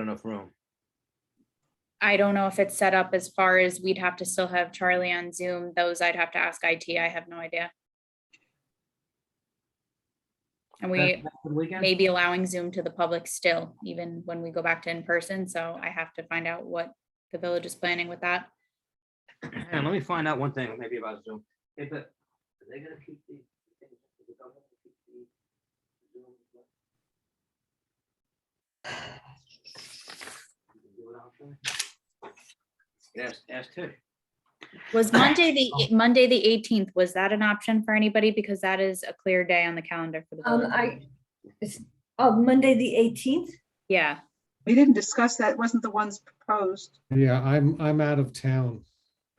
enough room. I don't know if it's set up as far as we'd have to still have Charlie on Zoom. Those I'd have to ask IT. I have no idea. And we may be allowing Zoom to the public still, even when we go back to in-person. So I have to find out what the village is planning with that. And let me find out one thing maybe about Zoom. Hey, but are they gonna keep the? Yes, ask Tish. Was Monday the, Monday, the eighteenth, was that an option for anybody? Because that is a clear day on the calendar for the Um, village. I, it's, oh, Monday, the eighteenth? Yeah, We didn't discuss that, wasn't the ones proposed. Yeah, I'm, I'm out of town.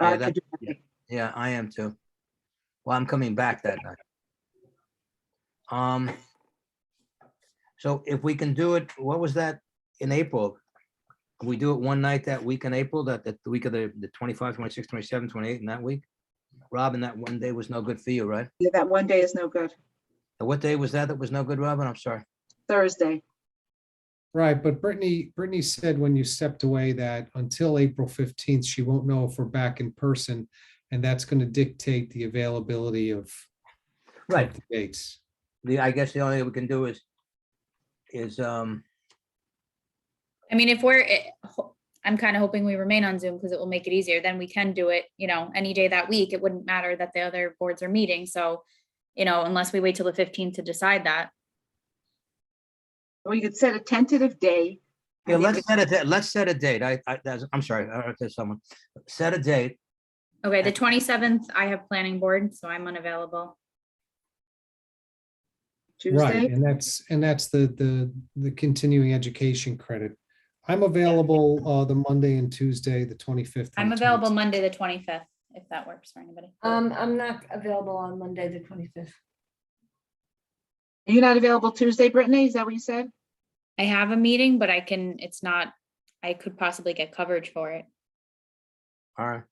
Yeah, uh, that- to do- yeah. Yeah, I am too. Well, I'm coming back that night. Um. So if we can do it, what was that in April? Can we do it one night that week in April, that, that the week of the, the 25, 26, 27, 28, in that week? Robin, that one day was no good for you, right? Yeah, that one day is no good, And What day was that that was no good, Robin? I'm sorry. Thursday. Right, but Brittany, Brittany said when you stepped away that until April fifteenth, she won't know if we're back in person. And that's going to dictate the availability of of Right, the dates. the, I guess the only thing we can do is, is, um, I mean, if we're, it- ho- I'm kind of hoping we remain on Zoom because it will make it easier. Then we can do it, you know, any day that week. It wouldn't matter that the other boards are meeting. So, you know, unless we wait till the fifteenth to decide that. We could set a tentative day. I Yeah, think let's it's- set a, da- let's set a date. I, I, that's- I'm sorry, I, I said someone, set a date. Okay, the twenty-seventh, I have planning board, so I'm unavailable. Right, Tuesday, and that's, and that's the, the, the continuing education credit. I'm available, uh, the Monday and Tuesday, the twenty-fifth. I'm available Monday, the twenty-fifth, if that works for anybody. Um, I'm not available on Monday, the twenty-fifth. you're not available Tuesday, Brittany, is that what you said? I have a meeting, but I can, it's not, I could possibly get coverage for it. All right.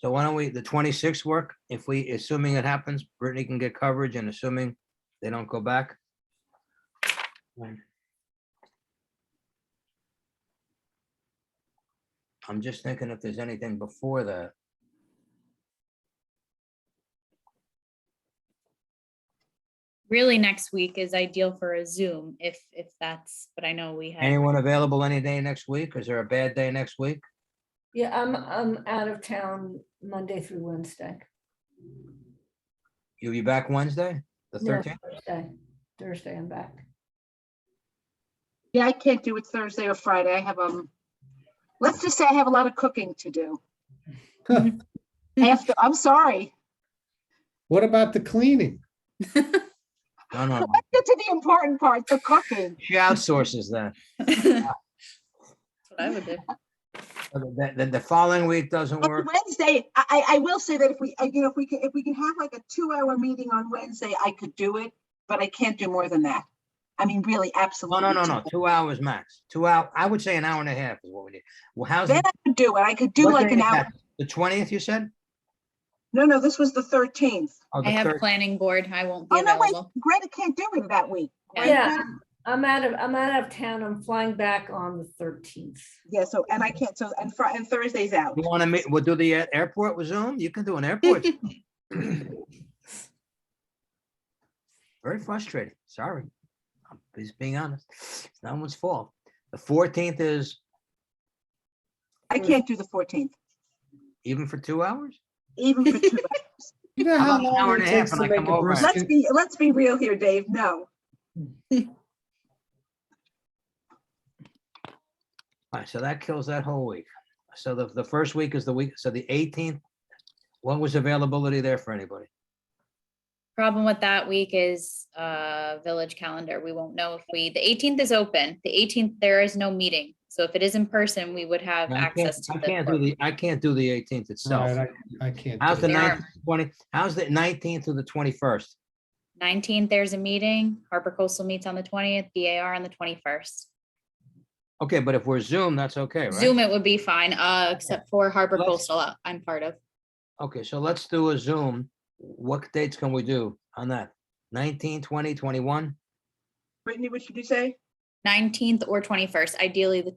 So why don't we, the twenty-sixth work, if we, assuming it happens, Brittany can get coverage and assuming they don't go back. Right. I'm just thinking if there's anything before that. Really, next week is ideal for a Zoom if, if that's, but I know we have, Anyone available any day next week? Is there a bad day next week? Yeah, I'm, I'm out of town Monday through Wednesday. You'll be back Wednesday, the No, thirteenth? Thursday. Thursday, I'm back. Yeah, I can't do it Thursday or Friday, I have, um, let's just say I have a lot of cooking to do. I have to, I'm sorry, What about the cleaning? No, no, no. get to the important part, the cooking. She outsources that. that's what I would do. Then, then the following week doesn't On work. Wednesday, I, I I will say that if we, uh, you know, if we can, if we can have like a two-hour meeting on Wednesday, I could do it, but I can't do more than that. I mean, really, No, absolutely. no, no, no, can't. two hours max, two hour, I would say an hour and a half is what we need. Well, how's? Then I could do it. I could do what like day an is hour. that? The twentieth, you said? No, no, this was the thirteenth. Oh, the I have third- planning board. I won't be Oh, no, wait, available. Greta can't do it that week. Yeah. Greta- Yeah. I'm out of, I'm out of town. I'm flying back on the thirteenth. Yeah, so, and I can't, so, and Fri- and Thursday's out. You want to meet, we'll do the uh, airport with Zoom? You can do an airport. Very frustrating, sorry. I'm just being honest. It's no one's fault. The fourteenth is I can't do the fourteenth, even for two hours? even for two. hours. You know How how about an hour long and it a half takes to and I make come a over? Let's brisket? be, let's be real here, Dave. No. All right, so that kills that whole week. So the, the first week is the week, so the eighteenth, what was availability there for anybody? Problem with that week is uh village calendar. We won't know if we, the eighteenth is open. The eighteenth, there is no meeting. So if it is in person, we would have No, I can't- access to I can't do the. the, I can't do the eighteenth All itself. right, I I can't. How's the do it. There are- nineteenth, twenty, how's the nineteenth to the twenty-first? Nineteenth, there's a meeting. Harbor Coastal meets on the twentieth, BAR on the twenty-first. Okay, but if we're Zoom, that's okay, right? Zoom it would be fine, uh, except for Harbor Let's- Coastal, uh, I'm part of. Okay, so let's do a Zoom. What dates can we do on that? 19, 20, 21? Brittany, what should you say? Nineteenth or twenty-first, ideally the